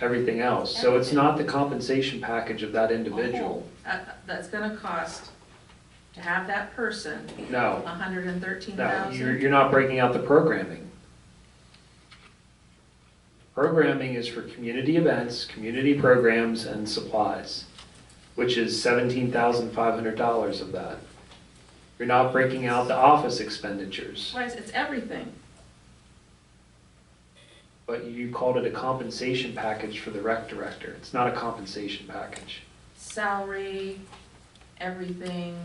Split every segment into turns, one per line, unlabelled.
everything else. So it's not the compensation package of that individual.
Uh, That's gonna cost, to have that person, a
No,
hundred and thirteen
no, you're,
thousand.
you're not breaking out the programming. Programming is for community events, community programs, and supplies, which is seventeen thousand five hundred dollars of that. You're not breaking out the office expenditures,
Why, is- it's everything.
but you called it a compensation package for the rec director. It's not a compensation package.
Salary, everything,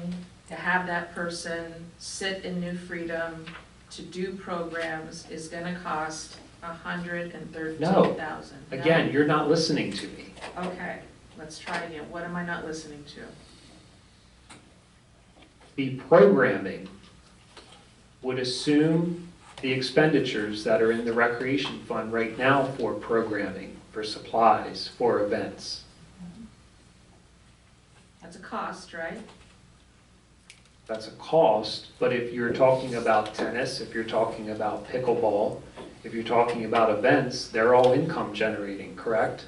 to have that person sit in New Freedom, to do programs is gonna cost a hundred and thirteen thousand.
Again, you're not listening to me.
Okay, let's try again. What am I not listening to?
the programming would assume the expenditures that are in the recreation fund right now for programming, for supplies, for events.
That's a cost, right?
That's a cost, but if you're talking about tennis, if you're talking about pickleball, if you're talking about events, they're all income generating, correct?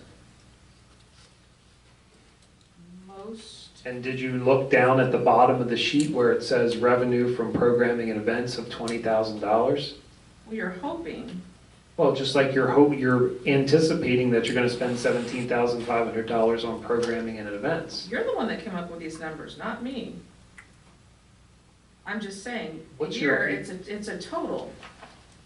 Most,
And did you look down at the bottom of the sheet where it says revenue from programming and events of twenty thousand dollars?
we are hoping,
Well, just like you're hope, you're anticipating that you're gonna spend seventeen thousand five hundred dollars on programming and events.
you're the one that came up with these numbers, not me. I'm just saying,
What's your-
here, it's a, it's a total.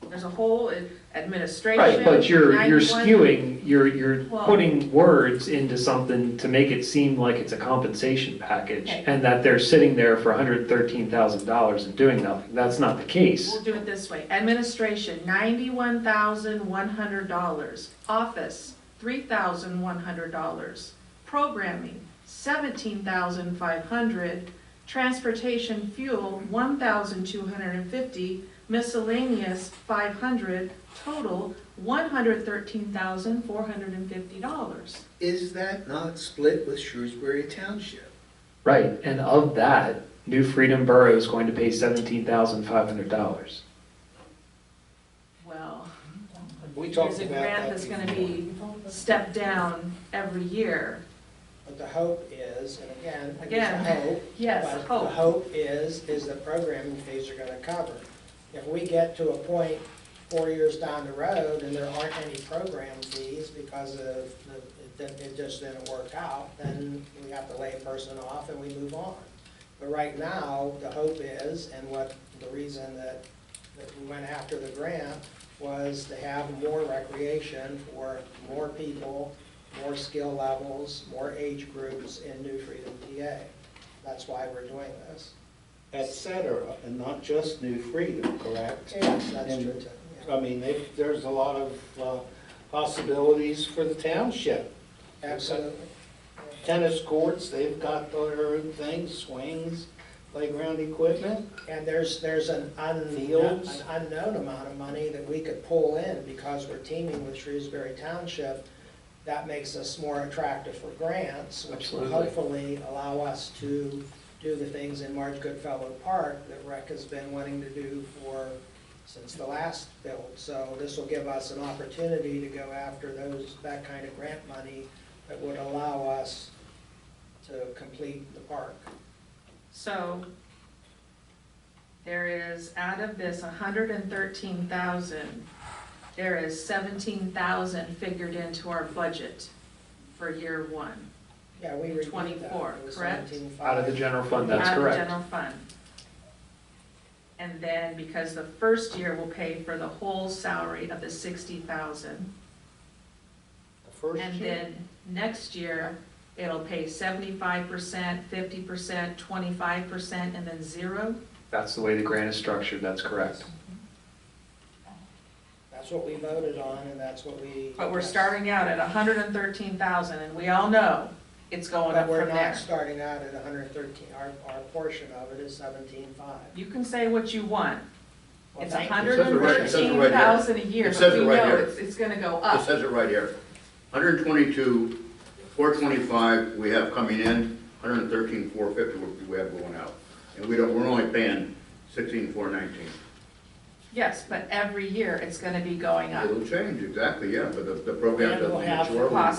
There's a whole uh, administration.
Right, but you're, you're
91
skewing, you're, you're
Well-
putting words into something to make it seem like it's a compensation package
Okay.
and that they're sitting there for hundred thirteen thousand dollars and doing nothing. That's not the case.
We'll do it this way. Administration, ninety-one thousand one hundred dollars. Office, three thousand one hundred dollars. Programming, seventeen thousand five hundred. Transportation fuel, one thousand two hundred and fifty. Miscellaneous, five hundred. Total, one hundred thirteen thousand four hundred and fifty dollars.
Is that not split with Shrewsbury Township?
Right, and of that, New Freedom Borough is going to pay seventeen thousand five hundred dollars.
Well,
We talked
there's a
about
grant
that
that's gonna
before.
be stepped down every year.
But the hope is, and again, it's a
Again,
hope.
yes,
but
hope.
The hope is, is the programming fees are gonna cover. If we get to a point four years down the road and there aren't any program fees because of, the- it didn't- it just didn't work out, then we have to lay a person off and we move on. But right now, the hope is, and what, the reason that, that we went after the grant was to have more recreation for more people, more skill levels, more age groups in New Freedom PA. That's why we're doing this.
Et cetera, and not just New Freedom, correct?
Yes, that's
And- uh,
true too. yeah.
I mean, they- there's a lot of uh, possibilities for the township.
Absolutely.
Tennis courts, they've got their own things, swings, playground equipment.
And there's, there's an unknown,
Fields.
an unknown amount of money that we could pull in because we're teaming with Shrewsbury Township. That makes us more attractive for grants, which will
Absolutely.
hopefully allow us to do the things in Marge Goodfellow Park that rec has been wanting to do for, since the last build. So this will give us an opportunity to go after those, that kind of grant money that would allow us to complete the park.
So there is, out of this hundred and thirteen thousand, there is seventeen thousand figured into our budget for year one.
Yeah, we reviewed that.
24,
It was
correct?
17.5.
Out of the general fund, that's
Out of
correct.
general fund. And then, because the first year will pay for the whole salary of the sixty thousand.
The first
And
year-
then next year, it'll pay seventy-five percent, fifty percent, twenty-five percent, and then zero.
That's the way the grant is structured, that's correct.
That's what we voted on, and that's what we.
But we're starting out at hundred and thirteen thousand, and we all know it's going up
But we're
from
not
there.
starting out at hundred and thirteen, our, our portion of it is seventeen-five.
You can say what you want, it's
Well, thank you.
hundred and
It says it
thirteen
right here.
thousand a year,
It
but
says it
we
right
know
here.
it's, it's gonna go
It
up.
says it right here. 122, 425 we have coming in, 113, 450 we have going out. And we don't, we're only paying 16, 419.
Yes, but every year it's gonna be going up.
It'll change, exactly, yeah, but the, the program
And we'll
doesn't
have the
mature.
cost